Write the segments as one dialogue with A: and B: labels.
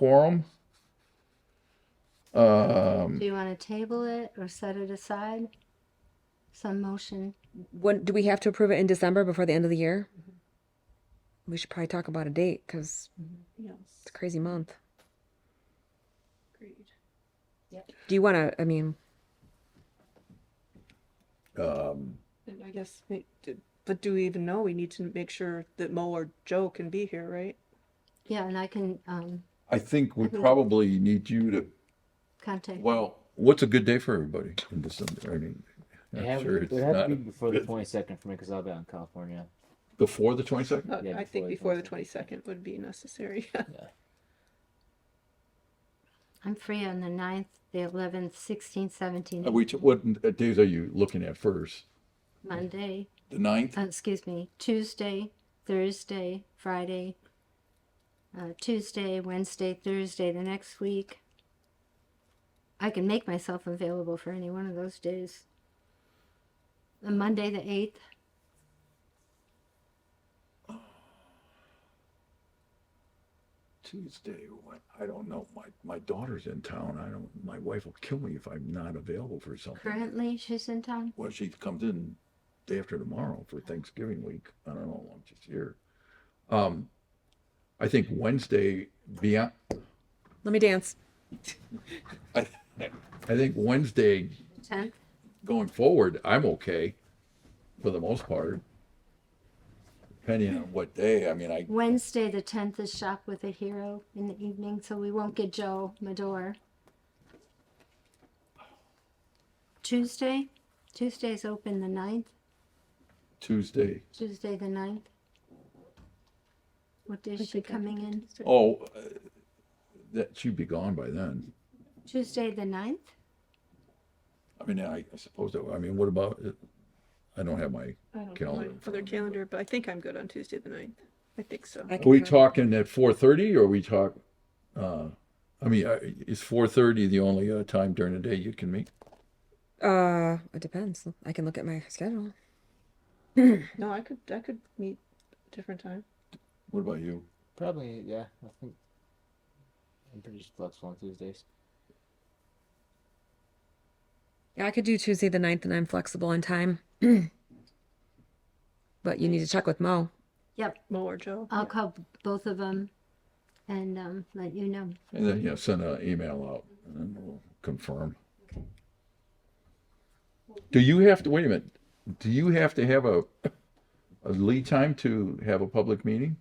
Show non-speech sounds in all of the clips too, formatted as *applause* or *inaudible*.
A: quorum. Um,
B: Do you want to table it or set it aside? Some motion?
C: When do we have to approve it in December before the end of the year? We should probably talk about a date because
D: Yes,
C: it's a crazy month.
D: agreed.
C: Do you want to? I mean,
A: um,
D: And I guess, ma- d- but do we even know? We need to make sure that Mo or Joe can be here, right?
B: Yeah, and I can um,
A: I think we probably need you to,
B: contact.
A: well, what's a good day for everybody in December? I mean,
E: It
A: I'm
E: have,
A: sure
E: it
A: it's
E: would have to
A: not
E: be before the 22nd for me because I'll be out in California.
A: before the twenty-second?
D: Uh,
E: Mm-hmm. Yeah,
D: I think
E: before
D: before
E: the
D: the twenty-second would be necessary. *laughs*
B: I'm free on the 9th, the 11th, 16th,
E: Mhm.
B: 17th,
A: Which, what uh, days are you looking at first?
B: Monday,
A: The ninth?
B: uh, excuse me, Tuesday, Thursday, Friday, uh, Tuesday, Wednesday, Thursday, the next week. I can make myself available for any one of those days. Uh, Monday, the 8th.
A: Tuesday, what, I don't know, my, my daughter's in town, I don't, my wife will kill me if I'm not available for something.
B: Currently, she's in town.
A: Well, she comes in day after tomorrow for Thanksgiving week, I don't know, I'm just here. Um, I think Wednesday, beyond,
C: let me dance.
A: I, I think Wednesday
B: 10th.
A: going forward, I'm okay for the most part. Depending on what day, I mean, I,
B: Wednesday, the 10th is Shop with a Hero in the evening, so we won't get Joe Medor. Tuesday? Tuesday's open the 9th.
A: Tuesday,
B: Tuesday, the 9th. What day is she coming in?
A: oh, uh, that, she'd be gone by then.
B: Tuesday, the 9th?
A: I mean, I I suppose that, I mean, what about, uh, I don't have my,
D: I don't know
A: Calendar
D: my
A: in front
D: other
A: of me, but-
D: calendar, but I think I'm good on Tuesday the ninth. I think so.
C: I
A: are we
C: come.
A: talking at four thirty or we talk, uh, I mean, uh, is four thirty the only uh, time during the day you can meet?
C: Uh, it depends. I can look at my schedule.
D: No, I could, I could meet a different time.
A: What about you?
E: Probably, yeah. I think I'm pretty flexible on Tuesdays.
C: Yeah, I could do Tuesday the 9th and I'm flexible on time. *clears throat* but you need to check with Mo.
B: Yep,
D: Mo or Joe.
B: I'll call both of them and um, let you know.
A: And then, yeah, send an email out and then we'll confirm. Do you have to, wait a minute, do you have to have a, a lead time to have a public meeting?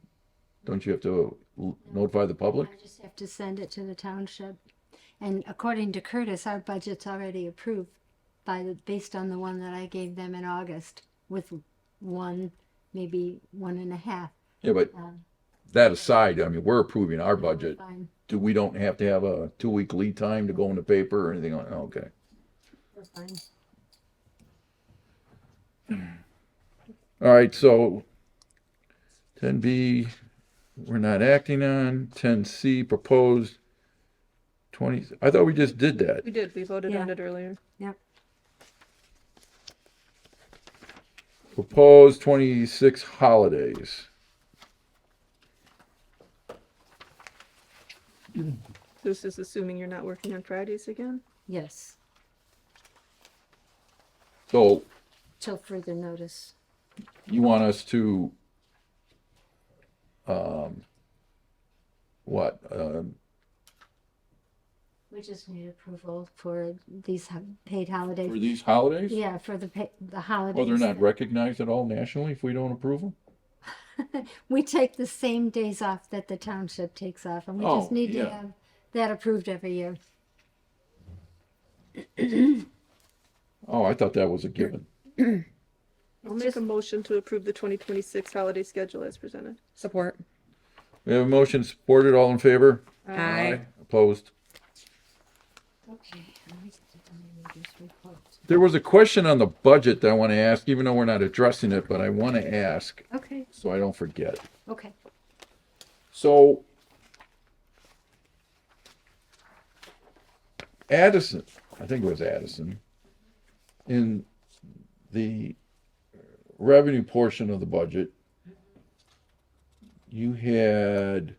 A: Don't you have to l- notify the public?
B: I just have to send it to the township. And according to Curtis, our budget's already approved by the, based on the one that I gave them in August with one, maybe one and a half.
A: Yeah, but
B: Um,
A: that aside, I mean, we're approving our budget.
B: fine.
A: do we don't have to have a two-week lead time to go in the paper or anything like, okay.
B: We're fine.
A: All right, so ten B, we're not acting on, ten C proposed twenty, I thought we just did that.
D: We did, we voted on
B: Yeah.
D: it earlier.
B: Yep.
A: Proposed twenty-six holidays.
D: This is assuming you're not working on Fridays again?
B: Yes,
A: So
B: till further notice.
A: you want us to, um, what, um,
B: We just need approval for these ho- paid
A: for
B: holidays.
A: these holidays?
B: Yeah, for the pay, the holidays.
A: Well, they're not recognized at all nationally if we don't approve them?
B: We take the same days off that the township takes off and we just
A: Oh,
B: need to
A: yeah.
B: have that approved every year.
A: Oh, I thought that was a given.
D: I'll make a motion to approve the twenty twenty-six holiday schedule as presented.
C: Support.
A: We have a motion supported, all in favor?
C: Aye.
A: Opposed?
B: Okay. let me get the manager's report.
A: There was a question on the budget that I want to ask, even though we're not addressing it, but I want to ask
B: Okay,
A: so I don't forget.
B: okay.
A: So Addison, I think it was Addison, in the revenue portion of the budget, you had